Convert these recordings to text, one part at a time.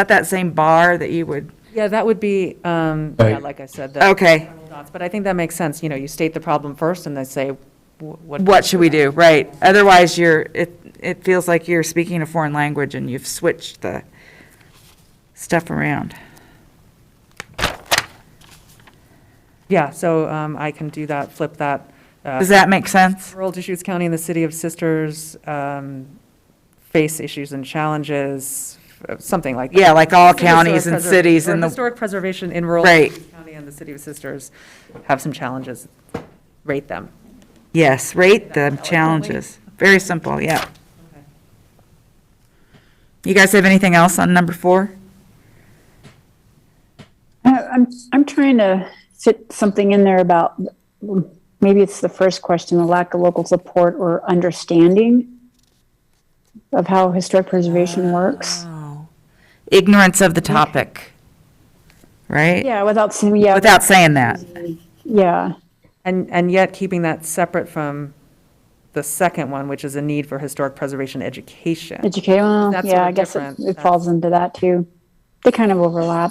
at that same bar that you would, Yeah, that would be, um, yeah, Right. like I said. the- okay, But I think that makes sense, you know, you state the problem first and then say wh- what. what should we do, right? Otherwise, you're, it, it feels like you're speaking a foreign language and you've switched the stuff around. Yeah, so um, I can do that, flip that. uh, Does that make sense? Rural Deschutes County and the City of Sisters um, face issues and challenges, uh, something like. that. Yeah, like all Historic counties and preser- cities or in the, Historic preservation in rural. Right. Deschutes County and the City of Sisters have some challenges. Rate them. yes, rate the challenges. Very simple, yeah. You guys have anything else on number four? I- Uh, I'm, I'm trying to fit something in there about, maybe it's the first question, the lack of local support or understanding of how historic preservation works. Ignorance of the topic, right? Yeah, without, saying- yeah, Without saying that. yeah, And, and yet keeping that separate from the second one, which is a need for historic preservation education. educate, well, That's sort yeah, I of guess it- different. it falls into that too. They kind of overlap.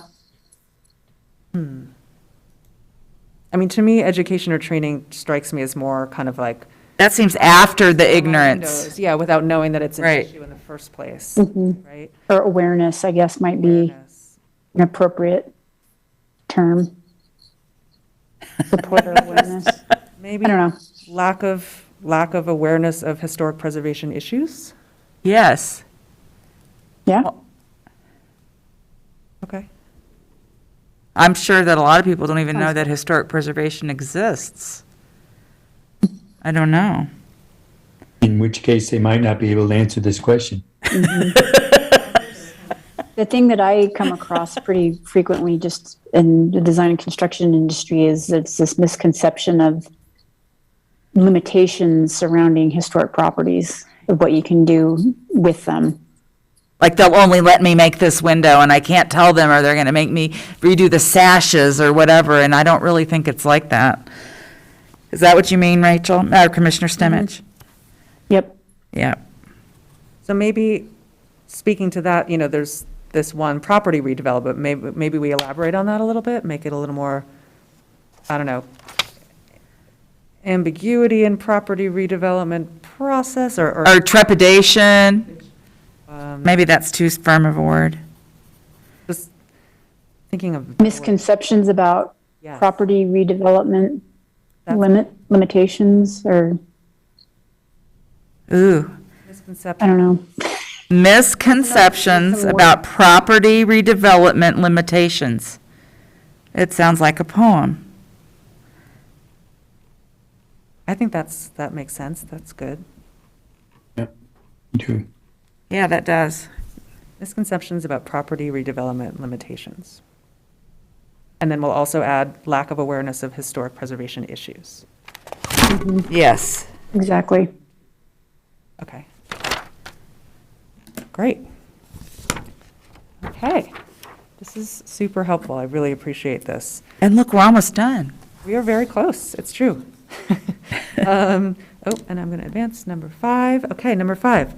I mean, to me, education or training strikes me as more kind of like. That seems after the ignorance. windows, Yeah, without knowing that it's an Right. issue in the first place, right? Mm-hmm. Or awareness, I guess, might be an appropriate term. Support or awareness. Maybe I don't know. lack of, lack of awareness of historic preservation issues? Yes. Yeah, Okay. I'm sure that a lot of people don't even know that historic preservation exists. I don't know. In which case, they might not be able to answer this question. the thing that I come across pretty frequently just in the design and construction industry is it's this misconception of limitations surrounding historic properties of what you can do with them. Like they'll only let me make this window and I can't tell them or they're going to make me redo the sashes or whatever. And I don't really think it's like that. Is that what you mean, Rachel? Or Commissioner Stemmich? Yep. Yeah. So maybe, speaking to that, you know, there's this one property redevelopment, maybe, maybe we elaborate on that a little bit, make it a little more, I don't know, ambiguity in property redevelopment process or, or, Or trepidation. um, Maybe that's too firm of a word. just thinking of. Misconceptions about Yes. property redevelopment That's- limit limitations or Ooh. I Misconception, don't know. Misconceptions about property redevelopment limitations. It sounds like a poem. I think that's, that makes sense, that's good. too. Yeah, that does. Misconceptions about property redevelopment limitations. And then we'll also add lack of awareness of historic preservation issues. Yes. Exactly. Okay. Great. Okay. This is super helpful. I really appreciate this. And look, we're almost done. We are very close. It's true. Um, Oh, and I'm going to advance number five. Okay, number five.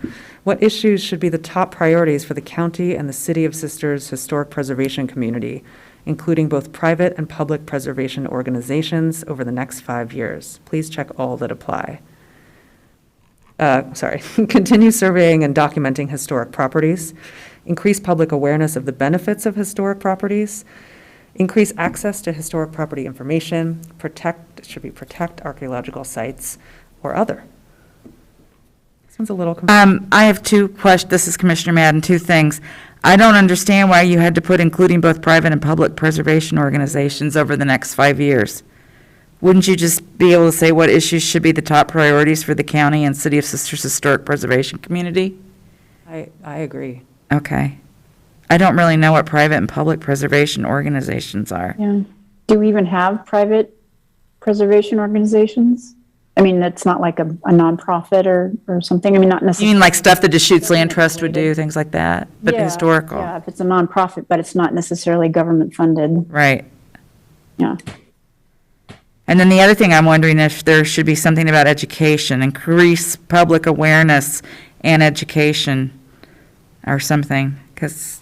What issues should be the top priorities for the county and the City of Sisters Historic Preservation Community, including both private and public preservation organizations over the next five years? Please check all that apply uh, sorry, continue surveying and documenting historic properties, increase public awareness of the benefits of historic properties, increase access to historic property information, protect, it should be protect archaeological sites or other. This one's a little, conf- Um, I have two questions. This is Commissioner Madden, two things. I don't understand why you had to put including both private and public preservation organizations over the next five years. Wouldn't you just be able to say what issues should be the top priorities for the county and City of Sisters Historic Preservation Community? I, I agree. Okay. I don't really know what private and public preservation organizations are. Yeah. Do we even have private preservation organizations? I mean, that's not like a, a nonprofit or, or something. I mean, not You necessarily. mean like stuff that Deschutes Land Trust would do, things like that, but Yeah, historical, Yeah, if it's a nonprofit, but it's not necessarily government funded. right? Yeah. And then the other thing I'm wondering if there should be something about education, increase public awareness and education or something, because